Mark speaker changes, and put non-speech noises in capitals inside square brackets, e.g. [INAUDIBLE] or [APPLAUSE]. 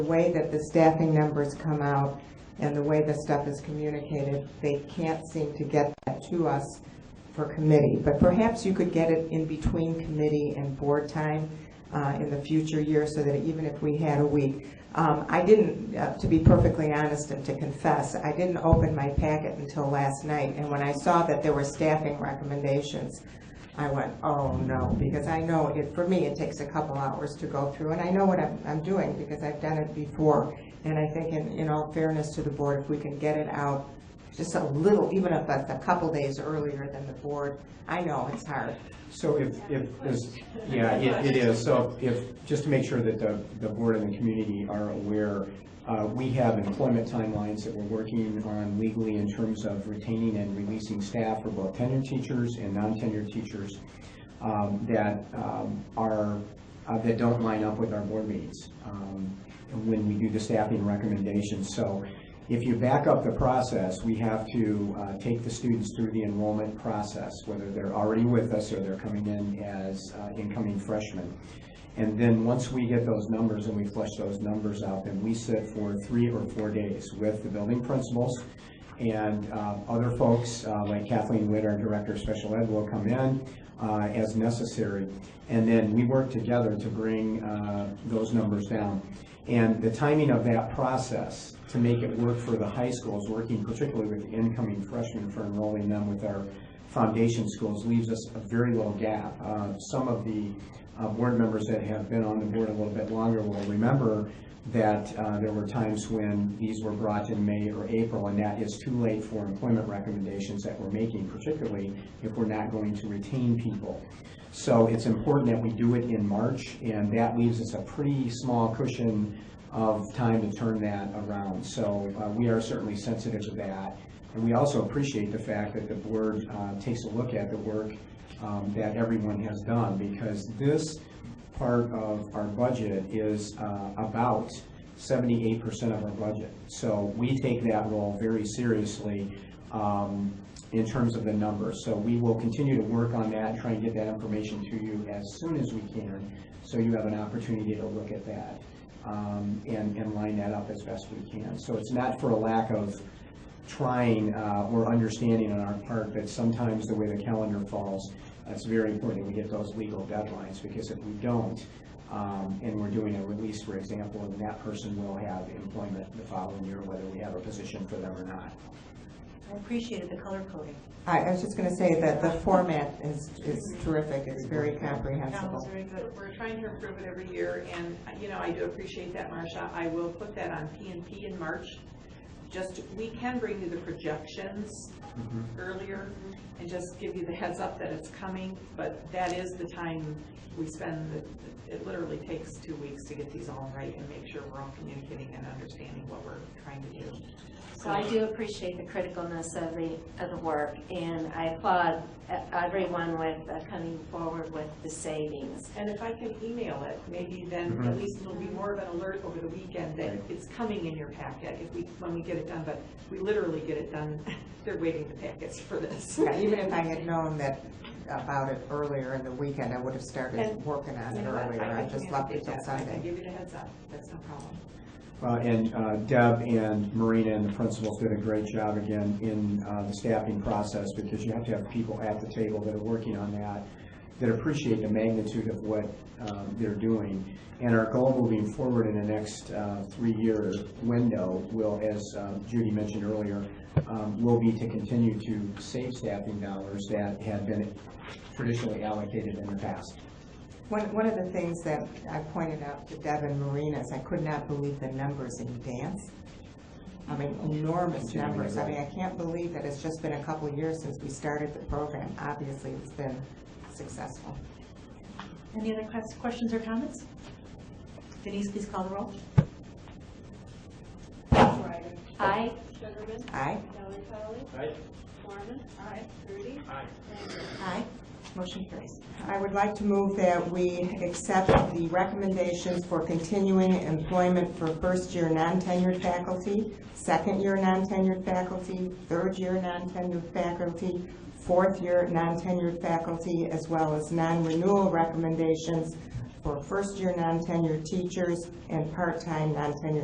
Speaker 1: The way that the staffing numbers come out and the way the stuff is communicated, they can't seem to get that to us for committee. But perhaps you could get it in between committee and board time uh, in the future year, so that even if we had a week. Um, I didn't, uh, to be perfectly honest and to confess, I didn't open my packet until last night. And when I saw that there were staffing recommendations, I went, oh, no, because I know it, for me, it takes a couple hours to go through, and I know what I'm, I'm doing, because I've done it before. And I think in, in all fairness to the board, if we can get it out just a little, even if that's a couple days earlier than the board, I know it's hard.
Speaker 2: So if, if, is- yeah, it it is, so if, just to make sure that the, the board and the community are aware, uh, we have employment timelines that we're working on legally in terms of retaining and releasing staff for both tenured teachers and non-tenured teachers um, that um, are, uh, that don't line up with our board meetings um, when we do the staffing recommendations. So if you back up the process, we have to uh, take the students through the enrollment process, whether they're already with us or they're coming in as uh, incoming freshmen. And then, once we get those numbers and we flush those numbers out, then we sit for three or four days with the building principals and uh, other folks, uh, like Kathleen Witt, our Director of Special Ed, will come in uh, as necessary. And then we work together to bring uh, those numbers down. And the timing of that process to make it work for the high schools, working particularly with the incoming freshmen for enrolling them with our foundation schools, leaves us a very little gap. Uh, Some of the uh, board members that have been on the board a little bit longer will remember that uh, there were times when these were brought in May or April, and that is too late for employment recommendations that we're making, particularly if we're not going to retain people. So it's important that we do it in March, and that leaves us a pretty small cushion of time to turn that around. So uh, we are certainly sensitive to that. And we also appreciate the fact that the board uh, takes a look at the work um, that everyone has done, because this part of our budget is uh, about seventy-eight percent of our budget. So we take that role very seriously um, in terms of the numbers. So we will continue to work on that, try and get that information to you as soon as we can, so you have an opportunity to look at that um, and, and line that up as best we can. So it's not for a lack of trying uh, or understanding on our part that sometimes the way the calendar falls, it's very important that we get those legal deadlines, because if we don't, um, and we're doing a release, for example, then that person will have employment the following year, whether we have a position for them or not.
Speaker 3: I appreciated the color coding.
Speaker 1: I, I was just gonna say that the format is, is terrific, it's very
Speaker 4: Yeah, it was
Speaker 1: comprehensible.
Speaker 4: very good. We're trying to improve it every year, and, you know, I do appreciate that, Marcia. I will put that on P and P in March. Just, we can bring you the projections earlier and just give you the heads up that it's coming, but that is the time we spend, the- it literally takes two weeks to get these all right and make sure we're all communicating and understanding what we're trying to do.
Speaker 3: So I do appreciate the criticalness of the, of the work, and I applaud uh, everyone with uh, coming forward with the savings.
Speaker 4: And if I can email it, maybe then
Speaker 2: Mhm.
Speaker 4: at least it'll be more of an alert over the weekend that
Speaker 2: Right.
Speaker 4: it's coming in your packet if we, when we get it done, but we literally get it done, [LAUGHS] they're waiting the packets for this.
Speaker 1: Yeah, Even
Speaker 4: [LAUGHS]
Speaker 1: if I had known that, about it earlier in the weekend, I would have started
Speaker 4: And-
Speaker 1: working on
Speaker 4: You
Speaker 1: it
Speaker 4: know what,
Speaker 1: earlier, I
Speaker 4: can
Speaker 1: just left it
Speaker 4: communicate
Speaker 1: till
Speaker 4: that. I can
Speaker 1: Sunday.
Speaker 4: give you the heads up, that's no problem.
Speaker 2: Uh, And uh, Deb and Marina and the principals did a great job again in uh, the staffing process because you have to have people at the table that are working on that, that appreciate the magnitude of what um, they're doing. And our goal moving forward in the next uh, three-year window will, as um, Judy mentioned earlier, um, will be to continue to save staffing dollars that had been traditionally allocated in the past.
Speaker 1: One, one of the things that I pointed out to Deb and Marina is I could not believe the numbers in dance. I mean, enormous
Speaker 2: Continuing
Speaker 1: numbers. I
Speaker 2: ed.
Speaker 1: mean, I can't believe that it's just been a couple of years since we started the program. Obviously, it's been successful.
Speaker 5: Any other ques- questions or comments? Denise, please call the roll.
Speaker 6: Ryder.
Speaker 3: I,
Speaker 6: Sugarman.
Speaker 1: Aye?
Speaker 6: Kelly Polly.
Speaker 2: Aye.
Speaker 6: Mormon. Aye. Rudy.
Speaker 2: Aye.
Speaker 5: Aye. Motion carries.
Speaker 1: I would like to move that we accept the recommendations for continuing employment for first-year non-tenured faculty, second-year non-tenured faculty, third-year non-tenured faculty, fourth-year non-tenured faculty, as well as non-renewal recommendations for first-year non-tenured teachers and part-time non-tenured